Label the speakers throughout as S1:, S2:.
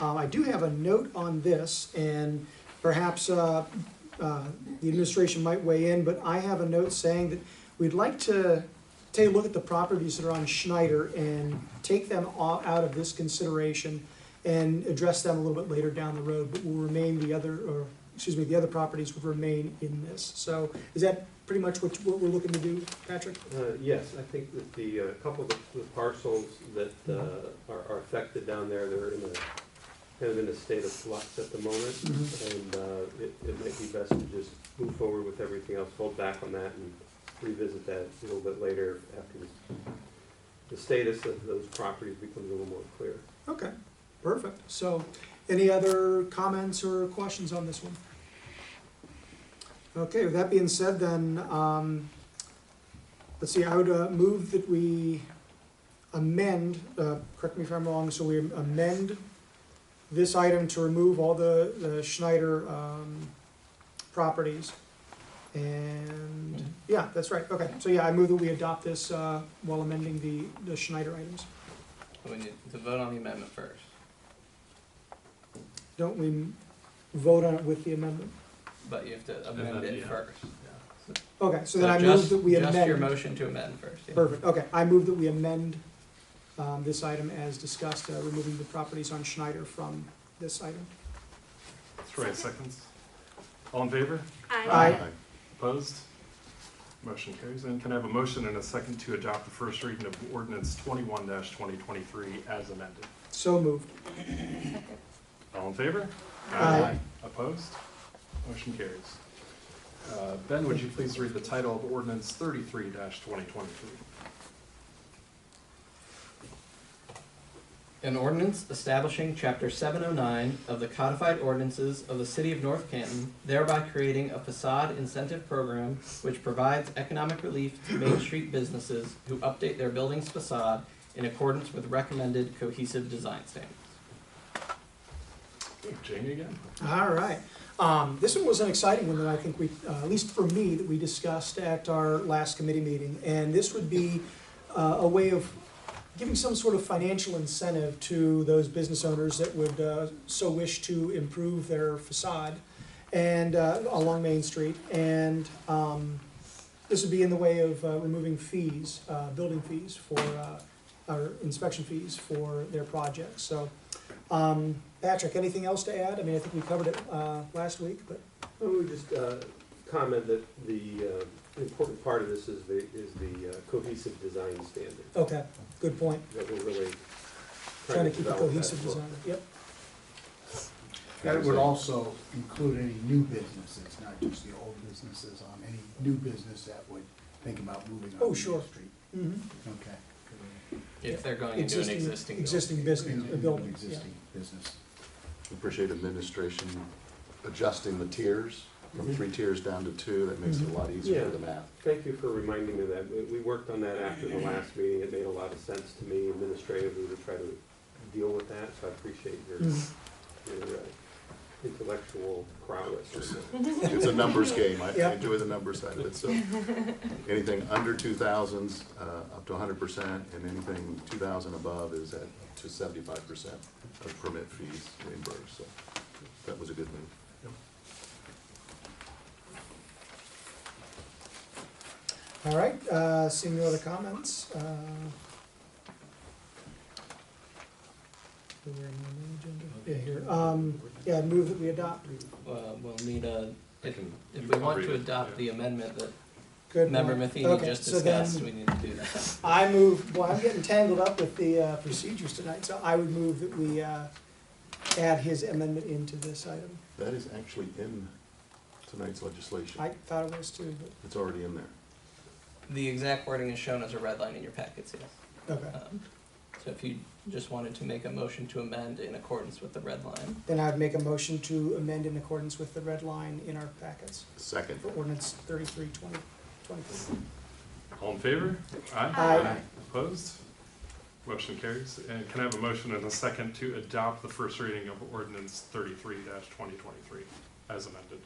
S1: Uh, I do have a note on this, and perhaps uh, uh, the administration might weigh in, but I have a note saying that we'd like to take a look at the properties that are on Schneider and take them all out of this consideration and address them a little bit later down the road, but will remain the other, or, excuse me, the other properties would remain in this. So is that pretty much what, what we're looking to do, Patrick?
S2: Uh, Yes, I think that the, a couple of the parcels that uh, are are affected down there, they're in a, kind of in a state of flux at the moment.
S1: Mhm.
S2: And uh, it, it might be best to just move forward with everything else, hold back on that and revisit that a little bit later after the- the status of those properties becomes a little more clear.
S1: Okay, perfect. So, any other comments or questions on this one? Okay, with that being said, then, um, let's see, I would uh, move that we amend, uh, correct me if I'm wrong, so we amend this item to remove all the, the Schneider, um, properties. And, yeah, that's right, okay. So, yeah, I move that we adopt this, uh, while amending the, the Schneider items.
S3: We need to vote on the amendment first.
S1: Don't we vote on it with the amendment?
S3: But you have to amend
S4: then,
S3: it
S4: yeah.
S3: first.
S1: Okay, so then
S3: So
S1: I move
S3: just-
S1: that we
S3: Just your
S1: amend.
S3: motion to amend first, yeah.
S1: Perfect, okay, I move that we amend um, this item as discussed, uh, removing the properties on Schneider from this item.
S4: Three seconds. All in favor?
S1: Aye.
S4: Opposed? Motion carries. And can I have a motion and a second to adopt the first reading of ordinance twenty-one twenty twenty-three as amended?
S1: So moved.
S4: All in favor?
S1: Aye.
S4: Opposed? Motion carries. Uh, Ben, would you please read the title of ordinance thirty-three twenty twenty-three?
S3: An ordinance establishing chapter seven oh nine of the codified ordinances of the city of North Canton, thereby creating a facade incentive program which provides economic relief to Main Street businesses who update their building's facade in accordance with recommended cohesive design standards.
S4: Jamie again?
S1: All right. Um, this one was an exciting one that I think we, uh, at least for me, that we discussed at our last committee meeting. And this would be uh, a way of giving some sort of financial incentive to those business owners that would uh, so wish to improve their facade and uh, along Main Street. And um, this would be in the way of uh, removing fees, uh, building fees for, uh, or inspection fees for their projects. So um, Patrick, anything else to add? I mean, I think we covered it, uh, last week, but,
S2: I
S1: Mm-hmm.
S2: would just uh, comment that the uh, important part of this is the, is the uh, cohesive design standard
S1: okay, good point.
S2: that we're really
S1: Trying to keep a
S2: develop that
S1: cohesive
S2: for.
S1: design, yep.
S5: That would also include any new businesses, not just the old businesses, on any new business that would think about moving on
S1: Oh,
S5: Main
S1: sure.
S5: Street.
S1: Mhm.
S5: Okay.
S3: If they're going into an existing building.
S1: Existing business,
S5: Any
S1: a building, yeah.
S5: Existing business.
S6: Appreciate administration adjusting the tiers from three tiers down to two. That makes it a lot easier for the math.
S2: Thank you for reminding me of that. We- We worked on that after the last meeting. It made a lot of sense to me administratively to try to deal with that, so I appreciate your,
S1: Mhm.
S2: your uh, intellectual prowess.
S6: It's a numbers game. I
S1: Yeah.
S6: I enjoy the number side of it, so. Anything under two thousands, uh, up to hundred percent, and anything two thousand above is at to seventy-five percent of permit fees reimbursed, so that was a good move.
S1: All right, uh, seeing no other comments, uh. where am I on the agenda? Yeah, here, um, yeah, move that we adopt,
S3: Uh, we'll need a,
S4: I
S3: if,
S4: can-
S3: if
S4: you
S3: we
S4: can
S3: want
S4: read
S3: to
S4: it,
S3: adopt
S4: yeah.
S3: the amendment that
S1: good.
S3: member
S1: one.
S3: Matheny
S1: Okay,
S3: just
S1: so then
S3: discussed, we need to do that.
S1: I move, boy, I'm getting tangled up with the, uh, procedures tonight, so I would move that we, uh, add his amendment into this item.
S6: That is actually in tonight's legislation.
S1: I thought it was too, but,
S6: It's already in there.
S3: The exact wording is shown as a red line in your packets, yes.
S1: okay.
S3: Um, So if you just wanted to make a motion to amend in accordance with the red line,
S1: Then I'd make a motion to amend in accordance with the red line in our packets
S6: Second.
S1: for ordinance thirty-three twenty twenty-four.
S4: All in favor?
S1: Aye.
S4: Opposed? Motion carries. And can I have a motion and a second to adopt the first reading of ordinance thirty-three twenty twenty-three as amended?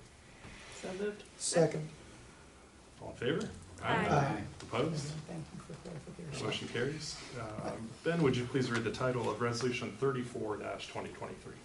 S1: Second.
S4: All in favor?
S1: Aye.
S4: Opposed? Um,
S1: Thank you for clarification.
S4: Motion carries. Uh, Ben, would you please read the title of Resolution thirty-four twenty twenty-three?